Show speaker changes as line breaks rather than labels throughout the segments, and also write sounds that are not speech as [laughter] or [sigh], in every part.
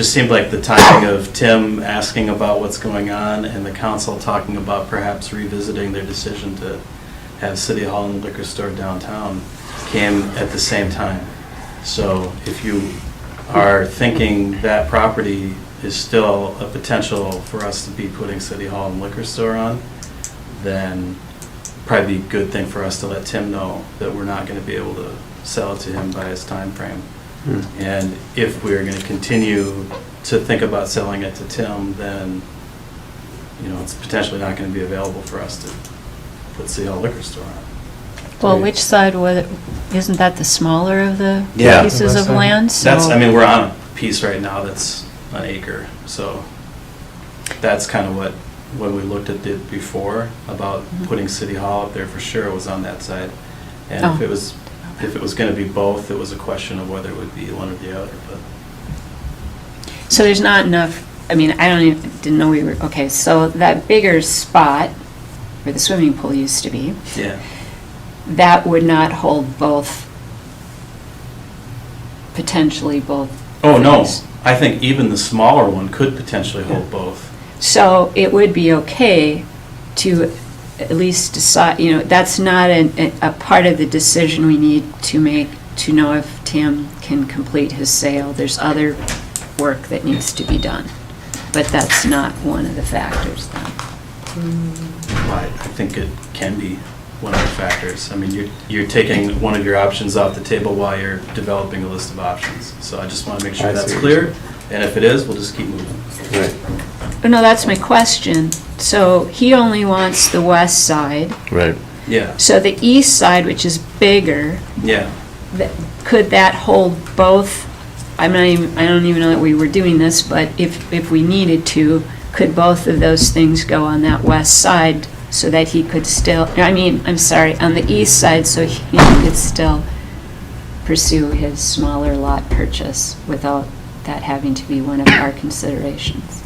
just seemed like the timing of Tim asking about what's going on and the council talking about perhaps revisiting their decision to have City Hall and liquor store downtown came at the same time. So if you are thinking that property is still a potential for us to be putting City Hall and liquor store on, then probably be a good thing for us to let Tim know that we're not going to be able to sell it to him by his time frame.
Hmm.
And if we're going to continue to think about selling it to Tim, then, you know, it's potentially not going to be available for us to put City Hall Liquor Store on.
Well, which side, was- isn't that the smaller of the
Yeah.
pieces of land? So
That's, I mean, we're on a piece right now that's an acre, so that's kind of what, when we looked at it before, about
Mhm.
putting City Hall up there for sure, it was on that side. And if
Oh.
it was, if it was going to be both, it was a question of whether it would be one or the other, but
So there's not enough, I mean, I don't even, didn't know we were, okay, so that bigger spot where the swimming pool used to be,
yeah.
that would not hold both, potentially both.
Oh, no,
things.
I think even the smaller one could potentially hold both.
So it would be okay to at least decide, you know, that's not an- a, a part of the decision we need to make to know if Tim can complete his sale. There's other work that needs to be done, but that's not one of the factors then.
I I think it can be one of the factors. I mean, you're, you're taking one of your options off the table while you're developing a list of options. So I just want to make sure
I see
that's
what you're
clear, and if it is, we'll just keep moving.
Right,
Oh, No, that's my question. So he only wants the west side,
right.
Yeah,
so the east side, which is bigger,
yeah.
That- Could that hold both, I'm not even, I don't even know that we were doing this, but if, if we needed to, could both of those things go on that west side so that he could still, I mean, I'm sorry, on the east side, so he could still pursue his smaller lot purchase without that having to be one of our considerations?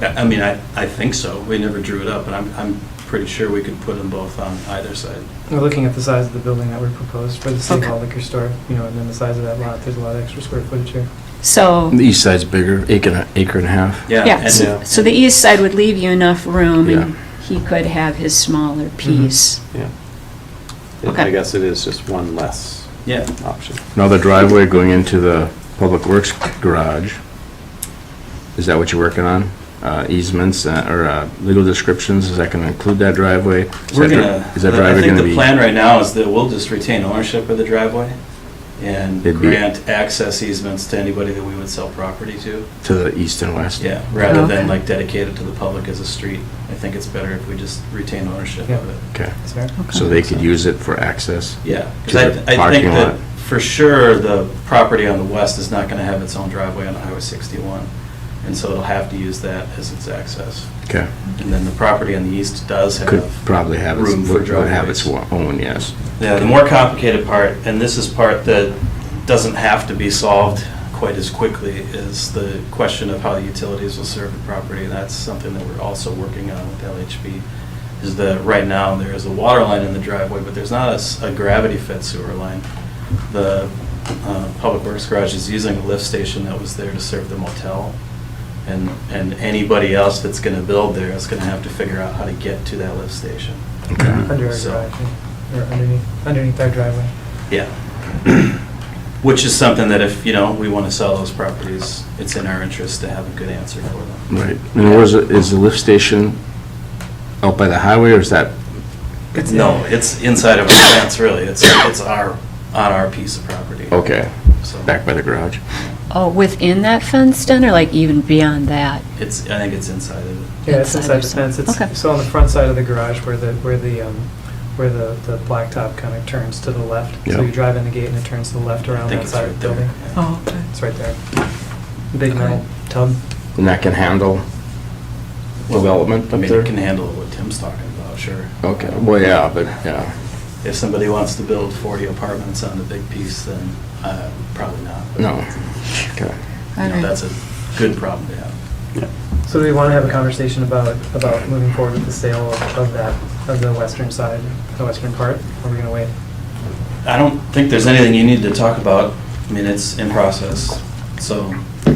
I I mean, I, I think so. We never drew it up, but I'm, I'm pretty sure we could put them both on either side.
We're looking at the size of the building that we proposed for the City
Okay.
Hall liquor store, you know, and then the size of that lot, there's a lot of extra square footage here.
So,
The e-, east side's bigger, acre and, a- acre and a half.
Oh. Yeah.
yeah,
and- uh,
so so the east side would leave you enough room and
Yeah.
he could have his smaller piece.
Yeah.
Okay.
I guess it is just one less
Yeah,
option.
Now the driveway going into the public works garage, is that what you're working on? Uh, easements uh, or uh, legal descriptions, is that gonna include that driveway? Is
we're
that dri-
gonna,
Is that
I
driveway
think
gonna
the
be?
plan right now is that we'll just retain ownership of the driveway and
It'd be-
grant access easements to anybody that we would sell property to.
To the east and west?
Yeah, rather
Okay.
than like dedicate it to the public as a street. I think it's better if we just retain ownership of it.
Okay,
Is there?
Okay.
so they could use it for access?
Yeah,
To
because
the
I, I think
parking
that
lot.
for sure, the property on the west is not going to have its own driveway on Highway 61. And so it'll have to use that as its access.
Okay,
And then the property on the east does have.
could probably have, its-
Room for
would would have its
driveways.
own, yes.
Yeah, the more complicated part, and this is part that doesn't have to be solved quite as quickly, is the question of how the utilities will serve the property. And that's something that we're also working on with LHB, is that right now, there is a water line in the driveway, but there's not a s- a gravity fed sewer line. The uh, Public Works Garage is using a lift station that was there to serve the motel. And, and anybody else that's going to build there is going to have to figure out how to get to that lift station.
Under our
So-
garage, yeah, or underneath, underneath our driveway.
Yeah. [clears throat] Which is something that if, you know, we want to sell those properties, it's in our interest to have a good answer for them.
Right, and where's, the- is the lift station out by the highway or is that
No, it's inside of our fence, really. It's, it's our, on our piece of property.
Okay,
So
back by the garage.
Oh, within that fence den, or like even beyond that?
it's, I think it's inside of it.
Yeah, it's
Inside or
inside the fence,
something. Okay.
it's, so on the front side of the garage where the, where the, um, where the, the blacktop kind of turns to the left.
Yeah.
So you drive in the gate and it turns to the left
I
around
think
that
it's
side
right
of the
there.
building.
yeah.
okay.
It's right there. Big metal tub.
And that can handle development
I
up
mean,
there?
it can handle what Tim's talking about, sure.
Okay, well, yeah, but, yeah,
If somebody wants to build 40 apartments on the big piece, then uh, probably not. but,
no, okay.
You know,
Alright.
that's a good problem to have.
So do we want to have a conversation about, about moving forward with the sale of of that, of the western side, the western part? Or are we going to wait?
I don't think there's anything you need to talk about. I mean, it's in process, so